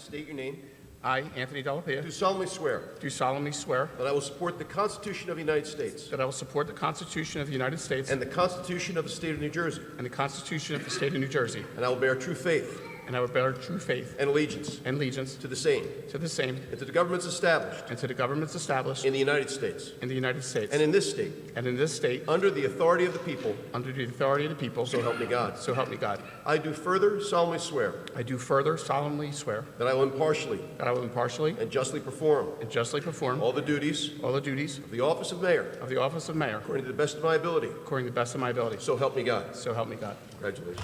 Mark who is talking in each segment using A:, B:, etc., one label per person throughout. A: state your name,
B: I, Anthony
A: do
B: Delapier,
A: solemnly swear
B: do solemnly swear
A: that I will support the Constitution of the United States
B: that I will support the Constitution of the United States
A: and the Constitution of the State of New Jersey,
B: and the Constitution of the State of New Jersey,
A: and I will bear true faith
B: and I will bear true faith
A: and allegiance
B: and allegiance
A: to the same
B: to the same
A: and to the governments established
B: and to the governments established
A: in the United States
B: in the United States
A: and in this state
B: and in this state
A: under the authority of the people,
B: under the authority of the people.
A: so help me God.
B: So help me God.
A: I do further solemnly swear
B: I do further solemnly swear
A: that I will impartially
B: that I will impartially
A: and justly perform
B: and justly perform
A: all the duties
B: all the duties
A: of the office of mayor
B: of the office of mayor
A: according to the best of my ability,
B: according to the best of my ability.
A: so help me God.
B: So help me God.
A: Congratulations.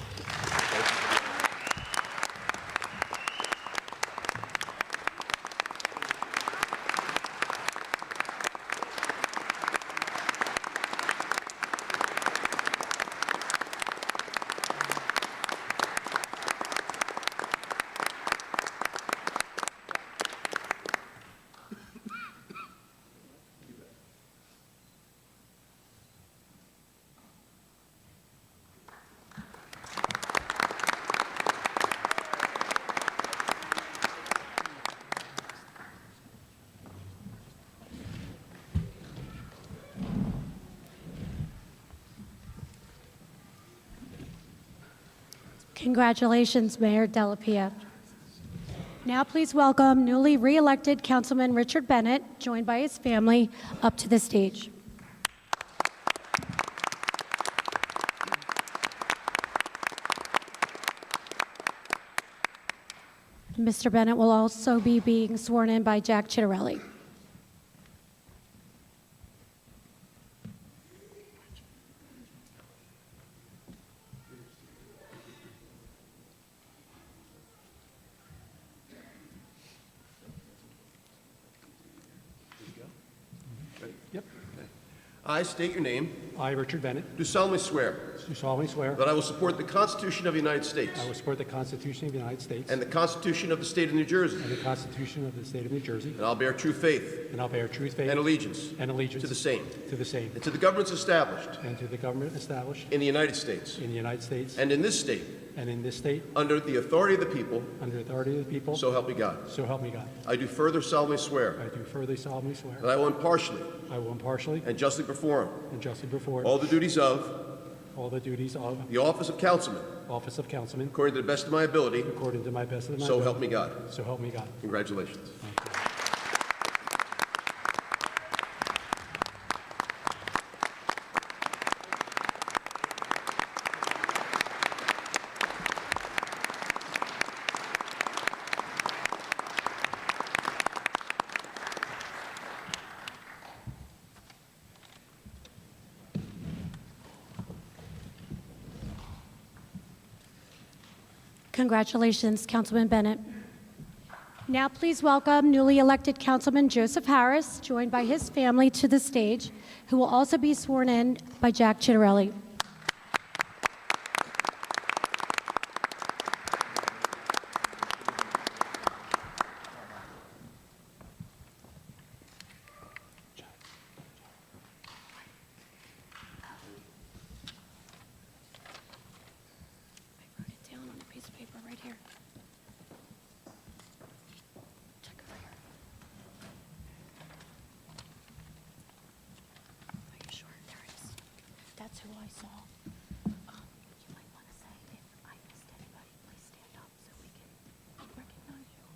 C: Congratulations, Mayor Delapia. Now please welcome newly re-elected Councilman Richard Bennett, joined by his family, up to the stage. Mr. Bennett will also be being sworn in by Jack Chitterelli.
A: I state your name,
D: I, Richard Bennett,
A: do solemnly swear
D: do solemnly swear
A: that I will support the Constitution of the United States
D: I will support the Constitution of the United States
A: and the Constitution of the State of New Jersey,
D: and the Constitution of the State of New Jersey,
A: and I'll bear true faith
D: and I'll bear true faith
A: and allegiance
D: and allegiance
A: to the same
D: to the same,
A: and to the governments established
D: and to the government established
A: in the United States
D: in the United States
A: and in this state
D: and in this state
A: under the authority of the people,
D: under the authority of the people,
A: so help me God.
D: so help me God.
A: I do further solemnly swear
D: I do further solemnly swear
A: that I will impartially
D: I will impartially
A: and justly perform
D: and justly perform
A: all the duties of
D: all the duties of
A: the office of councilman
D: office of councilman
A: according to the best of my ability,
D: according to my best of my
A: so
D: ability.
A: help me God.
D: So help me God.
A: Congratulations.
C: Congratulations, Councilman Bennett. Now, please welcome newly elected Councilman Joseph Harris, joined by his family, to the stage, who will also be sworn in by Jack Chitterelli. I wrote it down on a piece of paper right here. Check over here. Are you sure? There it is. That's who I saw. Um, You might want to say if I missed anybody, please stand up so we can recognize you.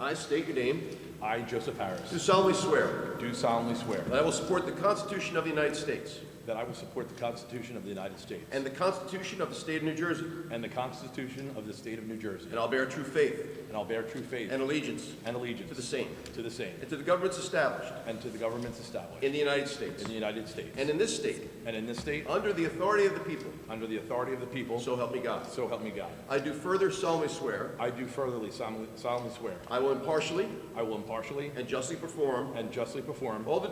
A: I state your name,
E: I, Joseph
A: do
E: Harris,
A: solemnly swear
E: do solemnly swear
A: that I will support the Constitution of the United States
E: that I will support the Constitution of the United States
A: and the Constitution of the State of New Jersey,
E: and the Constitution of the State of New Jersey,
A: and I'll bear true faith
E: and I'll bear true faith
A: and allegiance
E: and allegiance
A: to the same
E: to the same,
A: and to the governments established
E: and to the governments established
A: in the United States
E: in the United States
A: and in this state
E: and in this state
A: under the authority of the people,
E: under the authority of the people,
A: so help me God.
E: so help me God.
A: I do further solemnly swear
E: I do furtherly solemnly solemnly swear
A: I will impartially
E: I will impartially
A: and justly perform
E: and justly perform
A: all the